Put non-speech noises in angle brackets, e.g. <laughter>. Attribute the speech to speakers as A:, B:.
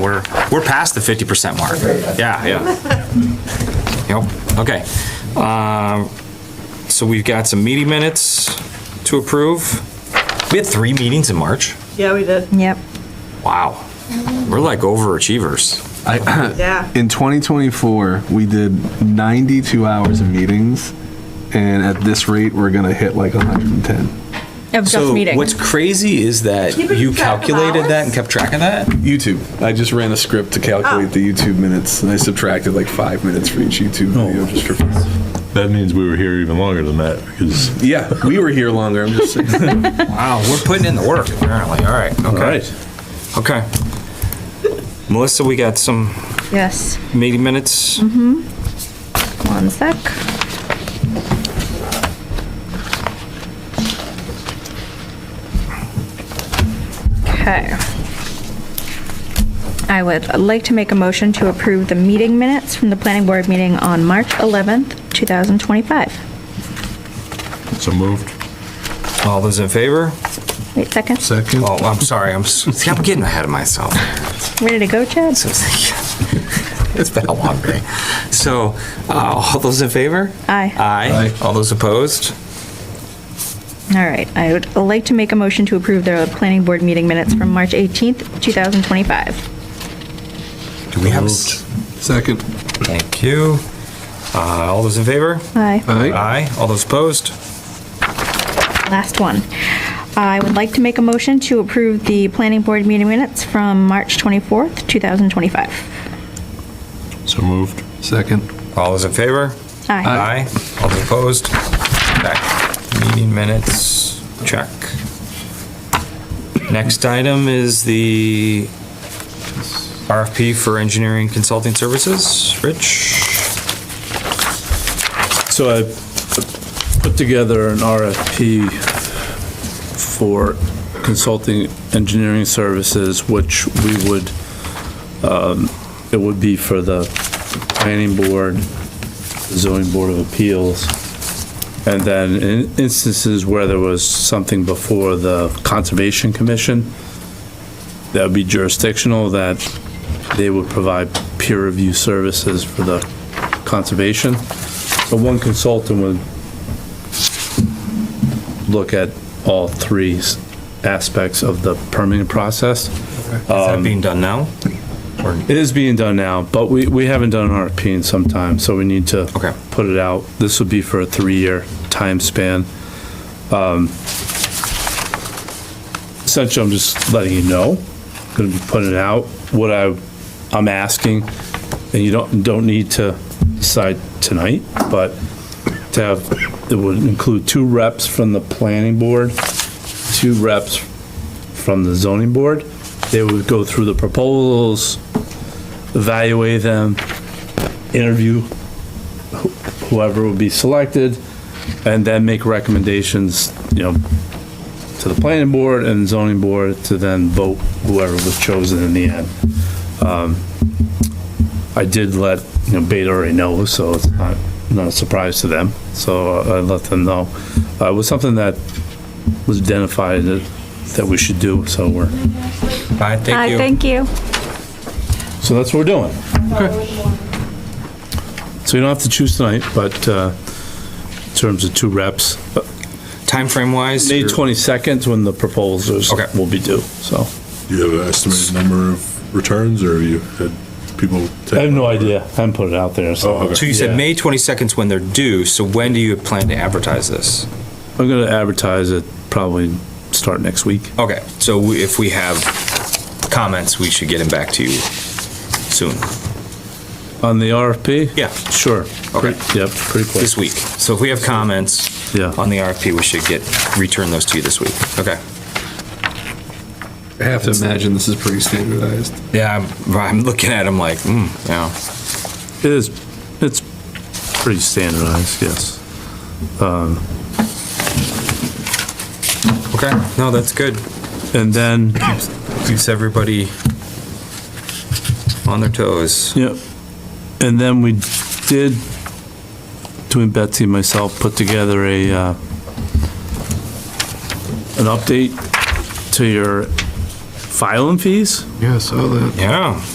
A: We're, we're past the 50% mark. Yeah, yeah. Yep, okay. Um, So we've got some meeting minutes to approve. We had three meetings in March.
B: Yeah, we did.
C: Yep.
A: Wow. We're like overachievers.
B: Yeah.
D: <clears throat> In 2024, we did 92 hours of meetings, and at this rate, we're gonna hit like 110.
C: Of just
E: So what's
C: meetings.
E: crazy is that
B: Keeping
E: you
B: track of
E: calculated that
B: hours?
E: and kept track of that?
D: YouTube. I just ran a script to calculate
B: Oh.
D: the YouTube minutes, and I subtracted like five minutes for each YouTube video. Just for,
F: That means we were here even longer than that because.
D: yeah, we were here longer. I'm just saying.
A: Wow, we're putting in the work apparently. All right, okay, okay. Melissa, we got some
C: Yes.
A: meeting minutes.
B: Mm-hmm.
C: One sec. Okay. I would like to make a motion to approve the meeting minutes from the planning board meeting on March 11th, 2025.
F: So moved.
A: All those in favor?
C: Wait a second.
F: Second.
A: Oh, I'm sorry,
E: <laughs>
A: I'm, s- see, I'm getting ahead of myself.
C: Ready to go, Chad?
A: <laughs> It's been a long day. So, uh, all those in favor?
C: Aye.
A: Aye. All those opposed?
C: All right. I would like to make a motion to approve the planning board meeting minutes from March 18th, 2025.
A: Do we have? a s-
D: <laughs> Second.
A: Thank you. Uh, all those in favor?
C: Aye.
A: Aye. All those opposed?
C: Last one. I would like to make a motion to approve the planning board meeting minutes from March 24th, 2025.
F: So moved.
D: Second.
A: All those in favor?
C: Aye.
A: Aye. All those opposed? Back. Meeting minutes, check. Next item is the RFP for engineering consulting services. Rich?
G: So I put together an RFP for consulting engineering services, which we would, um, it would be for the planning board, zoning board of appeals, and then in instances where there was something before the conservation commission, that would be jurisdictional, that they would provide peer review services for the conservation. But one consultant would look at all three s- aspects of the permitting process.
A: Is that being done now? Or-
G: It is being done now, but we, we haven't done an RFP in some time, so we need to
A: Okay.
G: put it out. This would be for a three-year time span. Um, Essentially, I'm just letting you know, gonna be putting it out, what I, I'm asking, and you don't, don't need to decide tonight, but to have, it would include two reps from the planning board, two reps from the zoning board. They would go through the proposals, evaluate them, interview wh- whoever would be selected, and then make recommendations, you know, to the planning board and zoning board to then vote whoever was chosen in the end. Um, I did let, you know, Beta already know, so it's not, not a surprise to them, so I let them know. Uh, It was something that was identified that, that we should do, so we're,
A: Aye, thank
C: Aye,
A: you.
C: thank you.
G: so that's what we're doing. So you don't have to choose tonight, but uh, in terms of two reps, uh,
A: Timeframe wise?
G: May
A: you're-
G: 22nd is when the proposals
A: Okay.
G: will be due, so.
F: Do you have an estimated number of returns or have you had people? take-
G: I have no idea, I haven't put it out there, so.
F: Oh, okay.
A: So you said
G: Yeah.
A: May 22nd's when they're due, so when do you plan to advertise this?
G: I'm gonna advertise it probably start next week.
A: Okay, so we- if we have comments, we should get them back to you soon,
G: On the RFP?
A: Yeah.
G: Sure.
A: Okay.
G: Yep, pretty quick.
A: this week. So if we have comments
G: Yeah.
A: on the RFP, we should get, return those to you this week. Okay.
D: I have to imagine this is pretty standardized.
A: Yeah, I'm, I'm looking at them like, hmm, yeah.
G: It is, it's pretty standardized, yes.
A: Okay, no, that's good.
G: And then,
A: Keeps everybody on their toes.
G: Yep. And then we did, doing Betsy and myself, put together a, uh, an update to your filing fees.
D: Yeah, I saw that.
A: Yeah.